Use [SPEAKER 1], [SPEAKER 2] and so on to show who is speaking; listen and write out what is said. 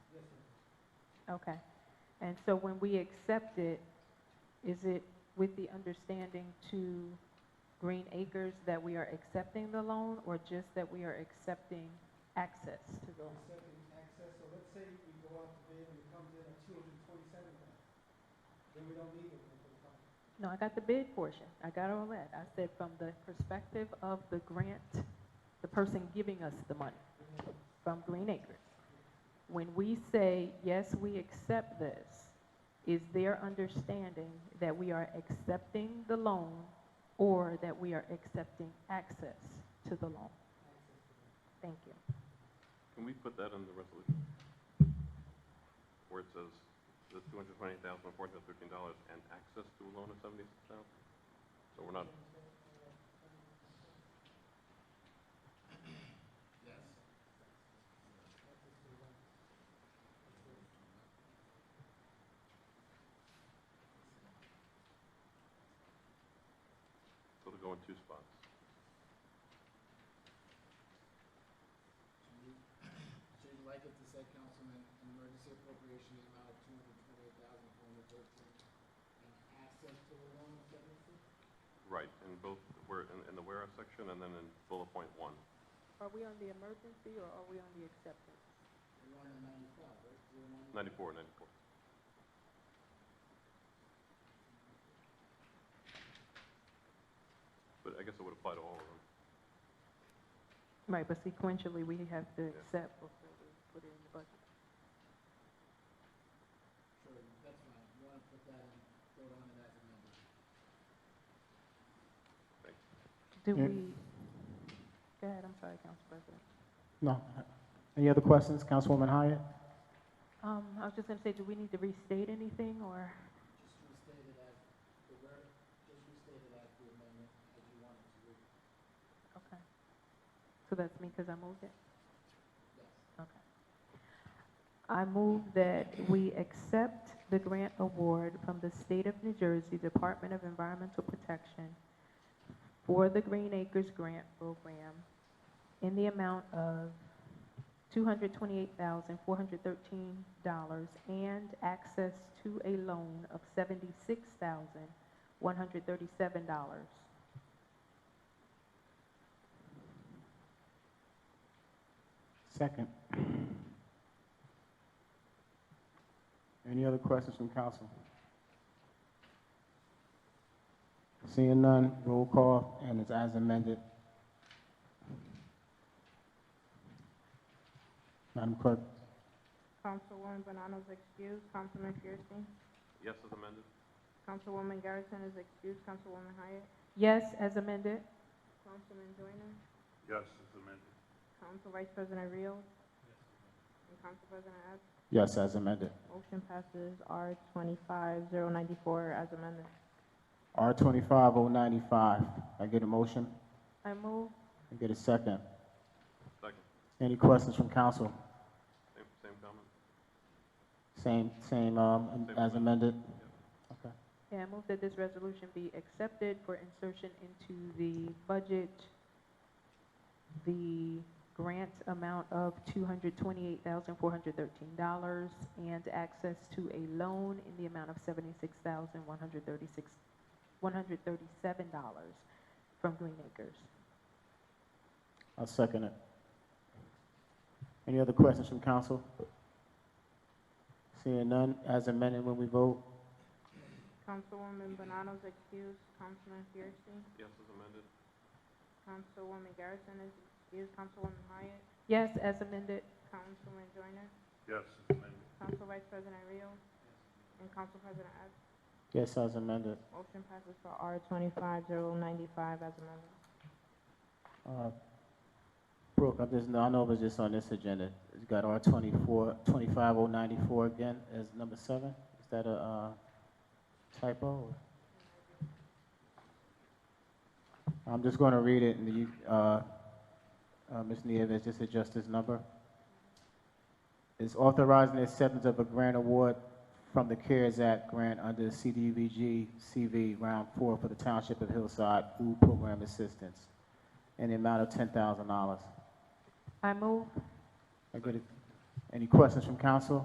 [SPEAKER 1] Okay. And so when we accept it, is it with the understanding to Green Acres that we are accepting the loan or just that we are accepting access to the loan?
[SPEAKER 2] accepting access, so let's say we go out to bid and it comes in at two hundred and twenty-seven thousand, then we don't need it for the project.
[SPEAKER 1] No, I got the bid portion. I got all that. I said from the perspective of the grant, the person giving us the money from Green Acres. When we say, yes, we accept this, is their understanding that we are accepting the loan or that we are accepting access to the loan? Thank you.
[SPEAKER 3] Can we put that in the resolution? Where it says the two hundred twenty thousand, four hundred fifteen dollars and access to a loan of seventy-six thousand? So we're not, so it'll go in two spots.
[SPEAKER 4] So you'd like it to say, Councilman, an emergency appropriation in the amount of two hundred twenty-eight thousand, four hundred thirteen, and access to a loan of seventy-six?
[SPEAKER 3] Right, in both, where, in, in the whereas section and then in bullet point one.
[SPEAKER 1] Are we on the emergency or are we on the acceptance?
[SPEAKER 4] You're on the ninety-five, right? You're on the-
[SPEAKER 3] Ninety-four, ninety-four. But I guess it would apply to all of them.
[SPEAKER 1] Right, but sequentially, we have to
[SPEAKER 3] Yeah.
[SPEAKER 1] accept before we put it in the budget.
[SPEAKER 4] Sure, that's fine. You wanna put that on, vote on it as amended.
[SPEAKER 1] Do
[SPEAKER 5] Yeah.
[SPEAKER 1] we, go ahead, I'm sorry, Council President.
[SPEAKER 5] No. Any other questions, Councilwoman Hyatt?
[SPEAKER 1] Um, I was just gonna say, do we need to restate anything, or,
[SPEAKER 4] Just restate it as, the word, just restate it as the amendment, as you want it to read.
[SPEAKER 1] okay. So that's me, because I moved it?
[SPEAKER 4] Yes.
[SPEAKER 1] Okay. I move that we accept the grant award from the State of New Jersey Department of Environmental Protection for the Green Acres Grant Program in the amount of $228,413 and access to a loan of $76,137.
[SPEAKER 5] Second. Any other questions from council? Seeing none, roll call, and it's as amended. Madam Clerk?
[SPEAKER 6] Councilwoman Bonanno's excused, Councilman Fierstein.
[SPEAKER 3] Yes is amended?
[SPEAKER 6] Councilwoman Garrison is excused, Councilwoman Hyatt.
[SPEAKER 1] Yes, as amended?
[SPEAKER 6] Councilman Joyner,
[SPEAKER 3] Yes is amended.
[SPEAKER 6] Council Vice President Rios, and Council President Epps.
[SPEAKER 5] Yes, as amended.
[SPEAKER 6] Motion passes R twenty-five zero ninety-four as amended.
[SPEAKER 5] R twenty-five oh ninety-five. I get a motion?
[SPEAKER 1] I move
[SPEAKER 5] I get a second.
[SPEAKER 3] Second,
[SPEAKER 5] Any questions from council?
[SPEAKER 3] same, same comment?
[SPEAKER 5] Same, same, um, as amended? Okay.
[SPEAKER 1] Yeah, I move that this resolution be accepted for insertion into the budget. The grant amount of $228,413 and access to a loan in the amount of $76,136, $137 from Green Acres.
[SPEAKER 5] I'll second it. Any other questions from council? Seeing none, as amended when we vote,
[SPEAKER 6] Councilwoman Bonanno's excused, Councilman Fierstein.
[SPEAKER 3] Yes is amended?
[SPEAKER 6] Councilwoman Garrison is excused, Councilwoman Hyatt.
[SPEAKER 1] Yes, as amended.
[SPEAKER 6] Councilman Joyner,
[SPEAKER 3] Yes is amended.
[SPEAKER 6] Council Vice President Rios, and Council President Epps.
[SPEAKER 5] yes, as amended.
[SPEAKER 6] Motion passes for R twenty-five zero ninety-five as amended.
[SPEAKER 5] Uh, Brooke, I just, I know it was just on this agenda. It's got R twenty-four, twenty-five oh ninety-four again as number seven. Is that a, uh, typo? or- I'm just gonna read it and you, uh, uh, Ms. Nieves, just adjust this number. It's authorizing the acceptance of a grant award from the CARES Act grant under CDBG CV Round Four for the Township of Hillside Food Program Assistance in the amount of ten thousand dollars.
[SPEAKER 1] I move
[SPEAKER 5] Any questions from council?